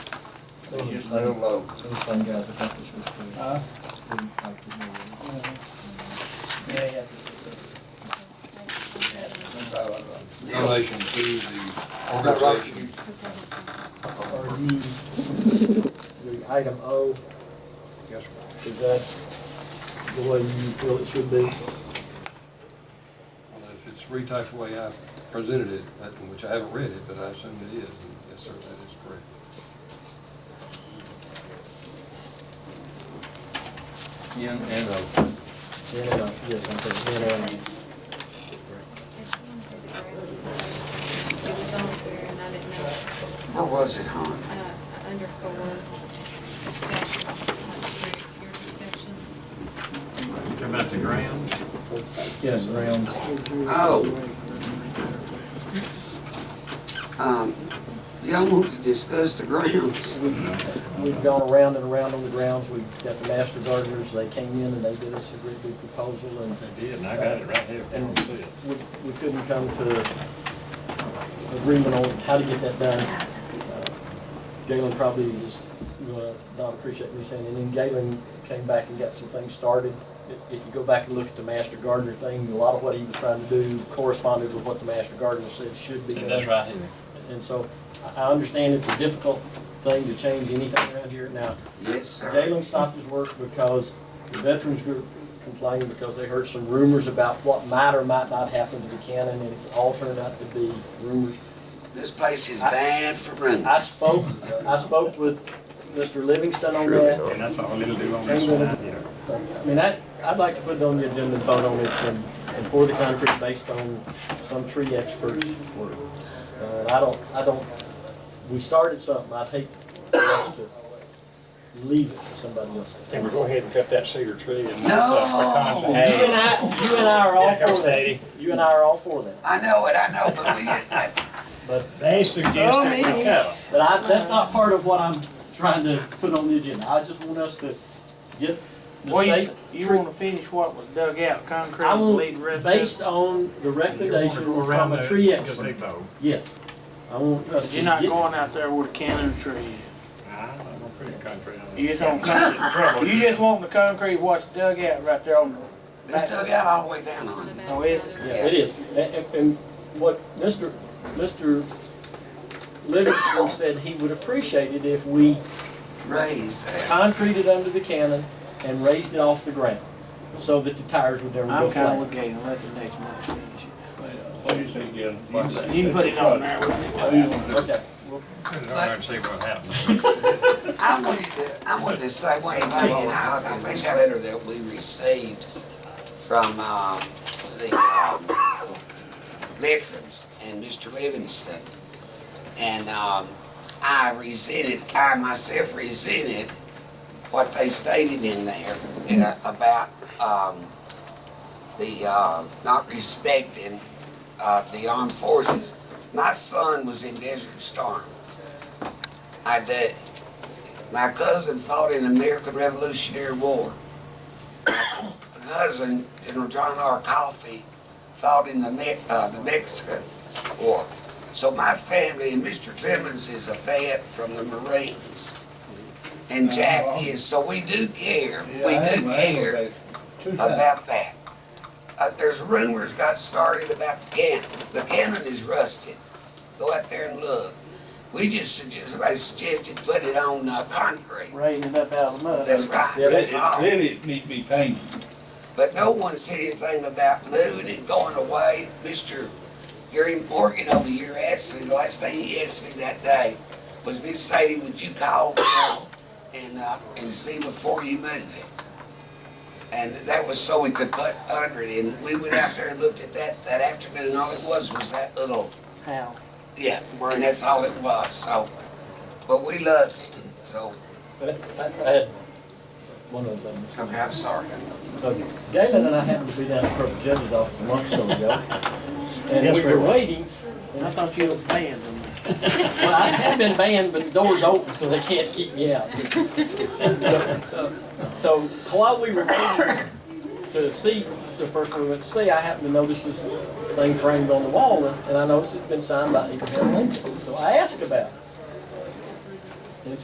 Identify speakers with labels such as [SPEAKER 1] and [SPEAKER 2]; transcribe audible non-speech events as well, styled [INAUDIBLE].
[SPEAKER 1] Those are the
[SPEAKER 2] I
[SPEAKER 1] same,
[SPEAKER 2] don't know.
[SPEAKER 1] those are the same guys that helped us with the
[SPEAKER 3] Huh?
[SPEAKER 1] student factor.
[SPEAKER 3] Yeah, yeah.
[SPEAKER 4] in relation to the organization.
[SPEAKER 3] Are you, the item O,
[SPEAKER 4] Yes, sir.
[SPEAKER 3] is that the way you feel it should be?
[SPEAKER 4] Well, if it's retyped the way I presented it, that- which I haven't read it, but I assume it is, and yes, sir, that is correct.
[SPEAKER 5] N and O.
[SPEAKER 3] Yeah, no, yes, I'm taking it out.
[SPEAKER 6] It was on there and I didn't know,
[SPEAKER 2] What was it, hon?
[SPEAKER 6] uh, under four, discussion, like, your- your discussion.
[SPEAKER 7] About the grounds,
[SPEAKER 1] Yes, around,
[SPEAKER 2] Oh. Um, y'all want to discuss the grounds?
[SPEAKER 3] We've gone around and around on the grounds, we've got the master gardeners, they came in and they did us a really good proposal and
[SPEAKER 7] they did, and I got it right here, if you want to see it.
[SPEAKER 3] we, we couldn't come to agreement on how to get that done. Uh, Galen probably is, gonna not appreciate me saying, it. and then Galen came back and got some things started. If if you go back and look at the master gardener thing, a lot of what he was trying to do corresponded with what the master gardener said should be done.
[SPEAKER 7] And that's right here.
[SPEAKER 3] And so I, I understand it's a difficult thing to change anything around here. Now,
[SPEAKER 2] Yes, sir.
[SPEAKER 3] Galen stopped his work because the veterans group complained because they heard some rumors about what might or might not happen to Buchanan, and it all turned out to be rumors.
[SPEAKER 2] This place is bad for running.
[SPEAKER 3] I spoke, I spoke with Mr. Livingston on
[SPEAKER 2] Surely
[SPEAKER 3] that.
[SPEAKER 2] not.
[SPEAKER 7] And that's all it'll do on this one out here.
[SPEAKER 3] So, I mean, I, I'd like to put it on the agenda and vote on it and, and pour the concrete based on some tree expert's work. Uh, I don't, I don't, we started something, I'd hate for us to leave it for somebody else to
[SPEAKER 7] And
[SPEAKER 3] finish.
[SPEAKER 7] we're going ahead and cut that cedar tree and.
[SPEAKER 2] No!
[SPEAKER 3] You and I, you and I are all
[SPEAKER 7] Hey,
[SPEAKER 3] for that.
[SPEAKER 7] Sadie.
[SPEAKER 3] You and I are all for that.
[SPEAKER 2] I know it, I know, but we [LAUGHS] didn't.
[SPEAKER 3] But,
[SPEAKER 7] They suggested we cut
[SPEAKER 3] but I, that's not part of what I'm trying to put on the agenda. I just want us to get
[SPEAKER 8] Well,
[SPEAKER 3] the
[SPEAKER 8] you,
[SPEAKER 3] state.
[SPEAKER 8] you wanna finish what was dug out, concrete,
[SPEAKER 3] I
[SPEAKER 8] and
[SPEAKER 3] want-
[SPEAKER 8] leave the rest of
[SPEAKER 3] Based
[SPEAKER 8] it?
[SPEAKER 3] on the recommendation from a tree expert. Yes. I want us to
[SPEAKER 8] You're not
[SPEAKER 3] get-
[SPEAKER 8] going out there with a cannon tree.
[SPEAKER 7] I'm gonna put a concrete on
[SPEAKER 8] You
[SPEAKER 7] it.
[SPEAKER 8] just want concrete, you just want the concrete what's dug out right there on the,
[SPEAKER 2] It's dug out all the way down on
[SPEAKER 6] The
[SPEAKER 2] it.
[SPEAKER 8] Oh, it-
[SPEAKER 6] backside of
[SPEAKER 3] Yeah, it is. And, and- and what Mr. Mr. Livingston said he would appreciate it if we
[SPEAKER 2] Raised that.
[SPEAKER 3] concreted under the cannon and raised it off the ground so that the tires would never go
[SPEAKER 8] I'm kinda
[SPEAKER 3] flat.
[SPEAKER 8] with Galen, let the next man finish
[SPEAKER 7] What do you think, Gil? What's that?
[SPEAKER 8] it. You can put it on there, we'll see what happens.
[SPEAKER 3] Okay.
[SPEAKER 4] Put it on there and see what happens.
[SPEAKER 2] I wanted to, I wanted to say one thing, and I, I think that letter that we received from, um, the, um, veterans and Mr. Livingston. And, um, I resented, I myself resented what they stated in there in a- about, um, the, uh, not respecting, uh, the armed forces. My son was in Desert Storm. I did, my cousin fought in the American Revolutionary War. My cousin, General John R. Coffee, fought in the Me- uh, the Mexican War. So my family, and Mr. Clemens is a vet from the Marines. And Jack is, so we do care, we do care about that. Uh, there's rumors got started about the cannon. The cannon is rusted. Go out there and look. We just suggested, somebody suggested put it on, uh, concrete.
[SPEAKER 8] Raising it up out of the mud.
[SPEAKER 2] That's right.
[SPEAKER 3] Yeah,
[SPEAKER 2] That's all.
[SPEAKER 7] it needs to be painted.
[SPEAKER 2] But no one said anything about moving and going away. Mr. Gary Morgan over here asked me, the last thing he asked me that day was, Miss Sadie, would you call now and, uh, and see before you move it? And that was so we could put under it, and we went out there and looked at that that afternoon, and all it was was that little
[SPEAKER 8] How?
[SPEAKER 2] yeah,
[SPEAKER 8] Right.
[SPEAKER 2] and that's all it was. So, but we loved it. So,
[SPEAKER 3] But I, I had one of them.
[SPEAKER 2] okay, I'm sorry.
[SPEAKER 3] So Galen and I happened to be down at Purple Judge's office a month or so ago. And
[SPEAKER 8] Yes,
[SPEAKER 3] we
[SPEAKER 8] we
[SPEAKER 3] were
[SPEAKER 8] were.
[SPEAKER 3] waiting,
[SPEAKER 8] And I thought you was banned on that.
[SPEAKER 3] well, I have been banned, but the door's open, so they can't keep me out. So, so while we were waiting to see the person we went to see, I happened to notice this thing framed on the wall, and and I noticed it's been signed by Abraham Lincoln. So I asked about it.